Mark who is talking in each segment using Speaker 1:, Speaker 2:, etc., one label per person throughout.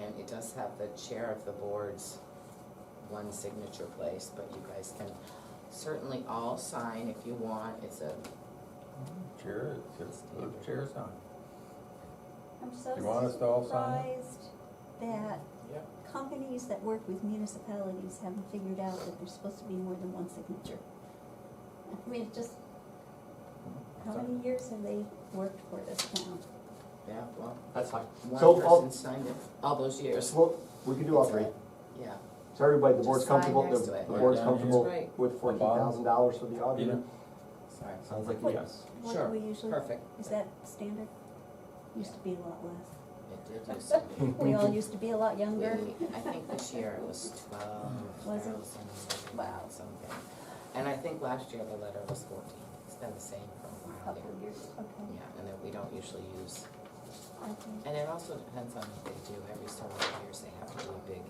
Speaker 1: And it does have the chair of the board's one signature place, but you guys can certainly all sign if you want. It's a,
Speaker 2: Chair, it's, the chair's on.
Speaker 3: I'm so
Speaker 2: You want us to all sign it?
Speaker 3: surprised that
Speaker 1: Yep.
Speaker 3: companies that work with municipalities haven't figured out that there's supposed to be more than one signature. I mean, it just, how many years have they worked for this town?
Speaker 1: yeah, well,
Speaker 4: That's fine.
Speaker 1: one
Speaker 4: So,
Speaker 1: person
Speaker 3: oh.
Speaker 4: all,
Speaker 1: signed it all those years.
Speaker 4: well, we can do all three.
Speaker 1: Yeah,
Speaker 4: So everybody, the board's
Speaker 1: Just sign
Speaker 4: comfortable, the
Speaker 1: next to it.
Speaker 4: the board's
Speaker 2: Yeah.
Speaker 4: comfortable
Speaker 1: Right.
Speaker 4: with fourteen thousand dollars for the
Speaker 2: Peter?
Speaker 4: auditor?
Speaker 1: sorry.
Speaker 2: Sounds like
Speaker 3: Wait.
Speaker 2: yes.
Speaker 3: What do
Speaker 1: Sure,
Speaker 3: we usually,
Speaker 1: Perfect.
Speaker 3: is that standard? Used to be a lot
Speaker 1: Mm-hmm.
Speaker 3: less.
Speaker 1: It did used to be.
Speaker 3: We all used to be a lot younger.
Speaker 1: We- I think this year it was twelve
Speaker 3: Was it?
Speaker 1: thousand,
Speaker 3: Wow.
Speaker 1: something. And I think last year the letter was fourteen. It's been the same for a while
Speaker 3: Couple
Speaker 1: here.
Speaker 3: of years, okay.
Speaker 1: Yeah, and then we don't usually use
Speaker 3: I think-
Speaker 1: And it also depends on what they do, every so many years they have to do a big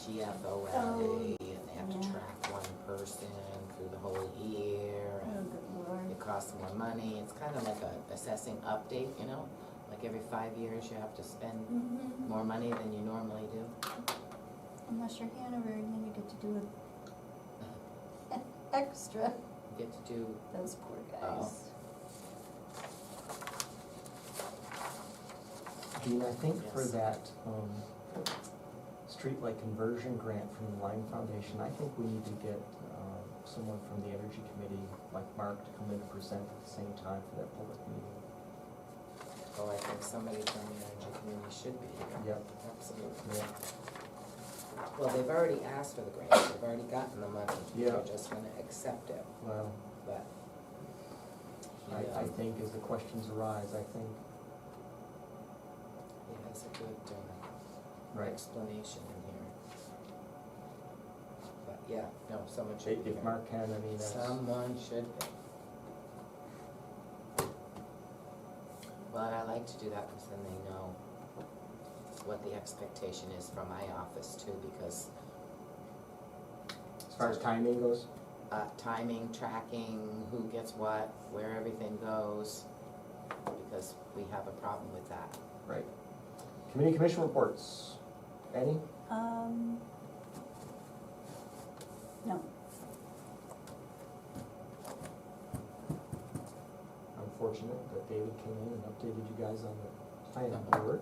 Speaker 1: GFO rally, and they have to
Speaker 3: yeah.
Speaker 1: track one person through the whole year,
Speaker 3: Oh,
Speaker 1: and
Speaker 3: good lord.
Speaker 1: it costs more money, it's kind of like a assessing update, you know? Like every five years, you have to spend
Speaker 3: Mhm.
Speaker 1: more money than you normally do.
Speaker 3: Unless you're Hanover and then you get to do an extra.
Speaker 1: You get to do,
Speaker 3: Those poor
Speaker 1: Oh.
Speaker 3: guys.
Speaker 5: Dean, I think for
Speaker 1: Yes.
Speaker 5: that, um, streetlight conversion grant from the Lime Foundation, I think we need to get, um, someone from the Energy Committee, like Mark, to come in and present at the same time for that public meeting.
Speaker 1: oh, I think somebody from the energy community should be here.
Speaker 5: Yep,
Speaker 1: Absolutely.
Speaker 5: yeah,
Speaker 1: Well, they've already asked for the grant, they've already gotten the money.
Speaker 5: Yeah.
Speaker 1: They're just gonna accept it,
Speaker 5: well,
Speaker 1: but. he,
Speaker 5: I, I
Speaker 1: um,
Speaker 5: think as the questions arise, I think,
Speaker 1: He has a good uh,
Speaker 5: right,
Speaker 1: explanation in here. But yeah, no, someone
Speaker 5: if-
Speaker 1: should be
Speaker 5: if
Speaker 1: here.
Speaker 5: Mark can, I mean, that's,
Speaker 1: Someone should be. But I like to do that because then they know what the expectation is from my office too, because
Speaker 5: as far as timing goes,
Speaker 1: uh, timing, tracking, who gets what, where everything goes, because we have a problem with that.
Speaker 5: right. Committee commission reports, any?
Speaker 3: Um, no,
Speaker 5: I'm fortunate that David came in and updated you guys on the planning board.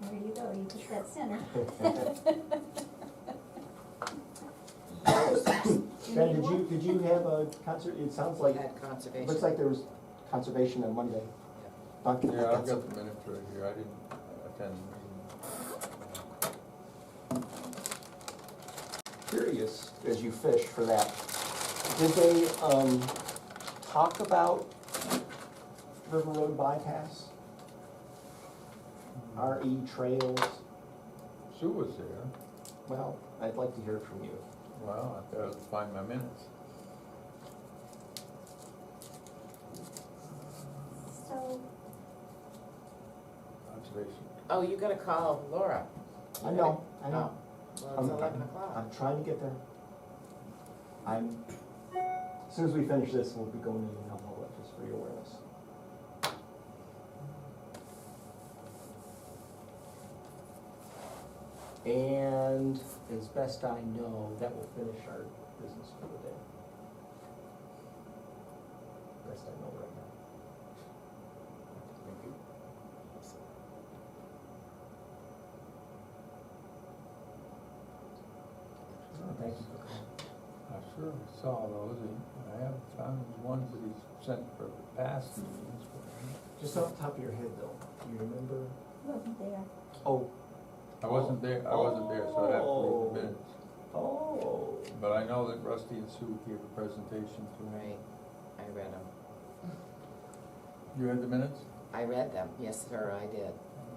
Speaker 3: there you go, you took that center. Do you
Speaker 4: Ben,
Speaker 3: need
Speaker 4: did you,
Speaker 3: one?
Speaker 4: did you have a concert, it sounds like,
Speaker 1: We had conservation.
Speaker 4: looks like there was conservation on Monday. Doc-
Speaker 2: Yeah, I've got the minutes right here, I didn't attend.
Speaker 4: Curious, as you fish for that, did they, um, talk about River Road bypass?
Speaker 2: Mm-hmm.
Speaker 4: RE trails,
Speaker 2: Sue was there,
Speaker 4: well, I'd like to hear it from you.
Speaker 2: well, I gotta find my minutes.
Speaker 3: So,
Speaker 2: Observation,
Speaker 1: Oh, you gotta call Laura.
Speaker 4: I know, I know,
Speaker 1: Oh, Well,
Speaker 4: I'm-
Speaker 1: it's eleven o'clock.
Speaker 4: I'm trying to get there. I'm, as soon as we finish this, we'll be going in and all that, just for your awareness.
Speaker 5: And as best I know, that will finish our business for the day. Best I know right now.
Speaker 2: thank you.
Speaker 5: Oh, Thank you for coming.
Speaker 2: I sure saw those, and I have found the ones that he sent for the past meetings, but
Speaker 4: Just off the top of your head though, do you remember?
Speaker 3: wasn't there.
Speaker 4: Oh,
Speaker 2: I wasn't there, I wasn't there, so I'd have to read the minutes.
Speaker 4: oh.
Speaker 2: But I know that Rusty and Sue gave a presentation to me.
Speaker 1: Right, I read them.
Speaker 2: You had the minutes?
Speaker 1: I read them, yes, sir, I did.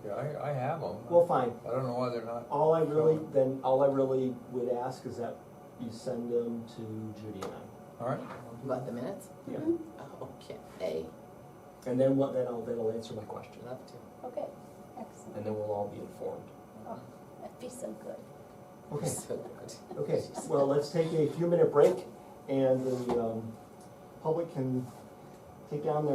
Speaker 2: Yeah, I, I have them.
Speaker 4: Well, fine.
Speaker 2: I don't know why they're not,
Speaker 4: All I really, then, all I really would ask is that you send them to Judy and I.
Speaker 2: all right?
Speaker 1: What, the minutes?
Speaker 4: Yeah.
Speaker 3: Mm-hmm.
Speaker 1: Oh, okay, hey,
Speaker 4: And then what, then I'll, that'll answer my question.
Speaker 1: love to.
Speaker 3: Okay, excellent.
Speaker 4: And then we'll all be informed.
Speaker 3: Oh, that'd be so good.
Speaker 4: Okay,
Speaker 1: So good.
Speaker 4: okay. Well, let's take a few minute break and the, um, public can take down their